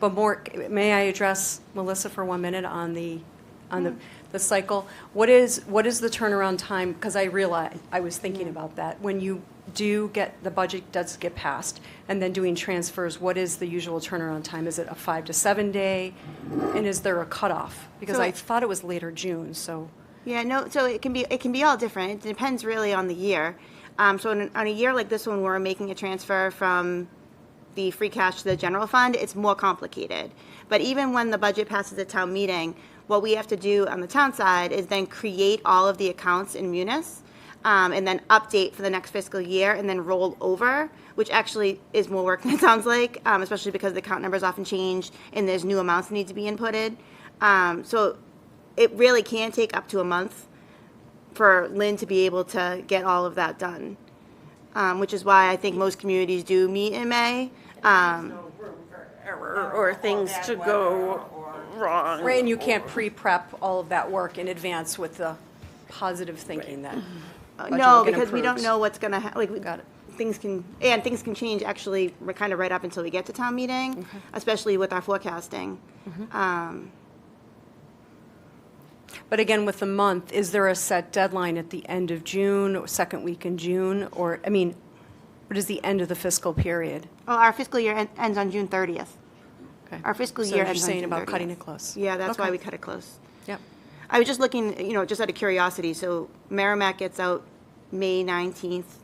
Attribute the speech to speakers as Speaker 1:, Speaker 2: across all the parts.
Speaker 1: But more, may I address Melissa for one minute on the, on the, the cycle? What is, what is the turnaround time? Because I realize, I was thinking about that. When you do get, the budget does get passed, and then doing transfers, what is the usual turnaround time? Is it a five to seven day? And is there a cutoff? Because I
Speaker 2: So-
Speaker 1: thought it was later June, so.
Speaker 2: Yeah, no, so it can be, it can be all different. It depends really on the year. Um, so on, on a year like this one, where we're making a transfer from the free cash to the general fund, it's more complicated. But even when the budget passes at town meeting, what we have to do on the town side is then create all of the accounts in Munis um, and then update for the next fiscal year and then roll over, which actually is more work than it sounds like, um, especially because the account numbers often change and there's new amounts that need to be inputted. Um, so it really can take up to a month for Lynn to be able to get all of that done, um, which is why I think most communities do meet in May. Um,
Speaker 3: error or things to go wrong.
Speaker 1: Right, and you can't pre-prep all of that work in advance with the positive thinking that. budget
Speaker 2: no,
Speaker 1: will get
Speaker 2: because we don't
Speaker 1: improved.
Speaker 2: know what's gonna ha- like. we-
Speaker 1: Got it.
Speaker 2: Things can and things can change actually. We're kind of right up until we get to town meeting, especially with our forecasting.
Speaker 1: But again, with the month, is there a set deadline at the end of June, or second week in June? Or, I mean, what is the end of the fiscal period?
Speaker 2: Well, our fiscal year en- ends on June 30th.
Speaker 1: Okay.
Speaker 2: Our fiscal
Speaker 1: So
Speaker 2: year
Speaker 1: you're
Speaker 2: ends on
Speaker 1: saying
Speaker 2: June
Speaker 1: about
Speaker 2: 30th.
Speaker 1: cutting it close.
Speaker 2: Yeah, that's why
Speaker 1: Okay.
Speaker 2: we cut it close.
Speaker 1: Yep.
Speaker 2: I was just looking, you know, just out of curiosity, so Merrimack gets out May 19th.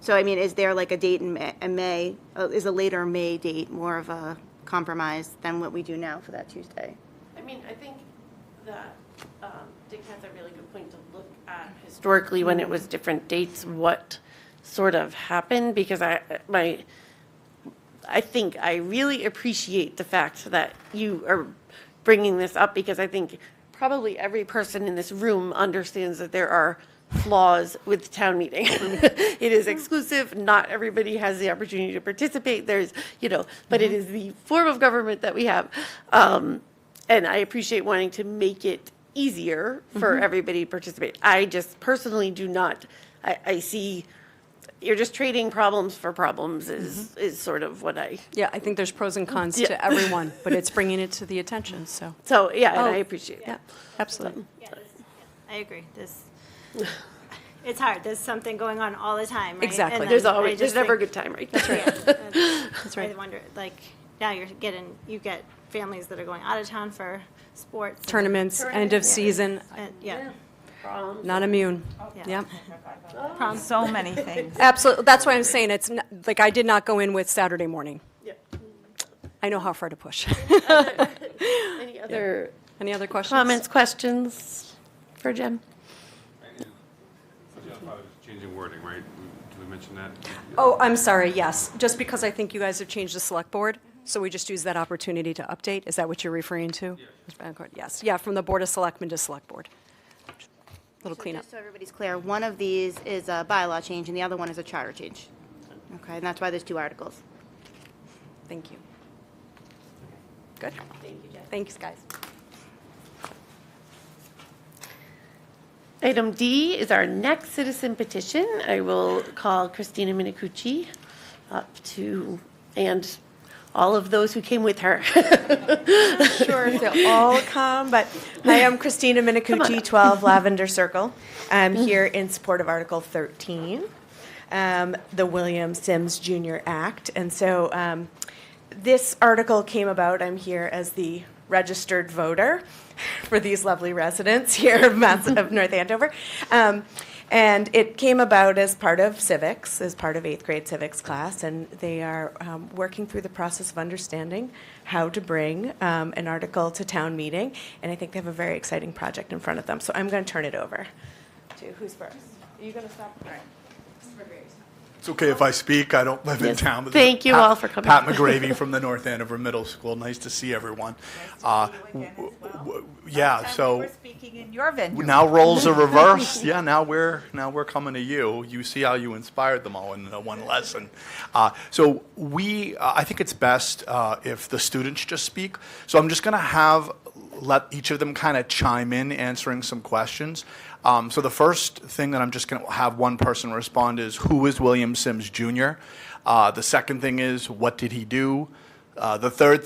Speaker 2: So I mean, is there like a date in Ma- in May, uh, is a later May date more of a compromise than what we do now for that Tuesday?
Speaker 4: I mean, I think that um, Dick has a really good point to look at historically when it was different dates, what sort of happened, because I, my, I think I really appreciate the fact that you are bringing this up because I think probably every person in this room understands that there are flaws with town meeting. It is exclusive, not everybody has the opportunity to participate, there's, you know, but it is the form of government that we have. Um, And I appreciate wanting to make it easier for everybody to participate. I just personally do not, I, I see you're just trading problems for problems is is sort of what I
Speaker 1: Yeah, I think there's pros
Speaker 2: Mm.
Speaker 1: and cons to everyone, but it's bringing it to the attention, so,
Speaker 4: so yeah, and
Speaker 1: Oh.
Speaker 4: I appreciate
Speaker 1: yeah,
Speaker 4: that.
Speaker 1: absolutely.
Speaker 5: Yeah, this- yeah, I agree. This, it's hard. There's something going on all the time, right?
Speaker 1: Exactly.
Speaker 5: And
Speaker 4: There's
Speaker 5: then I
Speaker 4: always there's
Speaker 5: just
Speaker 4: never a
Speaker 5: think-
Speaker 4: good time, right?
Speaker 5: Yeah, That's
Speaker 1: That's
Speaker 5: I
Speaker 1: right.
Speaker 5: wonder, like, now you're getting, you get families that are going out of town for sports. and-
Speaker 1: Tournaments, end of season,
Speaker 5: and- Yeah,
Speaker 1: not immune.
Speaker 5: Yeah.
Speaker 1: Yep.
Speaker 5: prom.
Speaker 6: So many things.
Speaker 1: Absolutely, that's why I'm saying it's, n- like, I did not go in with Saturday morning.
Speaker 4: Yeah.
Speaker 1: I know how far to push.
Speaker 4: Any other
Speaker 1: Any other questions?
Speaker 4: comments, questions for Jim?
Speaker 7: Changing wording, right? Did we mention that?
Speaker 1: Oh, I'm sorry, yes, just because I think you guys have changed the select board, so we just use that opportunity to update, is that what you're referring to? Yes, yeah, from the Board of Selectmen to Select Board. Little
Speaker 2: So
Speaker 1: cleanup.
Speaker 2: Just so everybody's clear, one of these is a bylaw change and the other one is a charter change. Okay, and that's why there's two articles.
Speaker 1: Thank you. Good. Thank you, Jeff. Thanks, guys.
Speaker 4: Item D is our next citizen petition. I will call Christina Minicucci up to and all of those who came with her.
Speaker 6: Sure, if they'll all come, but I am Christina Minicucci, 12 Lavender Circle. I'm here in support of Article 13, um, the William Sims Jr. Act. And so um, this article came about, I'm here as the registered voter for these lovely residents here of Mass- of North Andover. Um, And it came about as part of civics, as part of eighth grade civics class, and they are um, working through the process of understanding how to bring um, an article to town meeting, and I think they have a very exciting project in front of them. So I'm going to turn it over to, who's first? Are you going to stop? All right.
Speaker 8: It's okay if I speak, I don't live in
Speaker 4: Yes.
Speaker 8: town. This is
Speaker 4: Thank you
Speaker 8: Pat-
Speaker 4: all for coming.
Speaker 8: Pat McGravy from the North Andover Middle School, nice to see everyone. Uh, w- w- Yeah, so
Speaker 6: We're speaking in your venue.
Speaker 8: now roles are reversed, yeah, now we're, now we're coming to you. You see how you inspired them all in the one lesson. Uh, So we, uh, I think it's best uh, if the students just speak, so I'm just going to have, let each of them kind of chime in, answering some questions. Um, So the first thing that I'm just going to have one person respond is, who is William Sims Jr.? Uh, The second thing is, what did he do? Uh, The third thing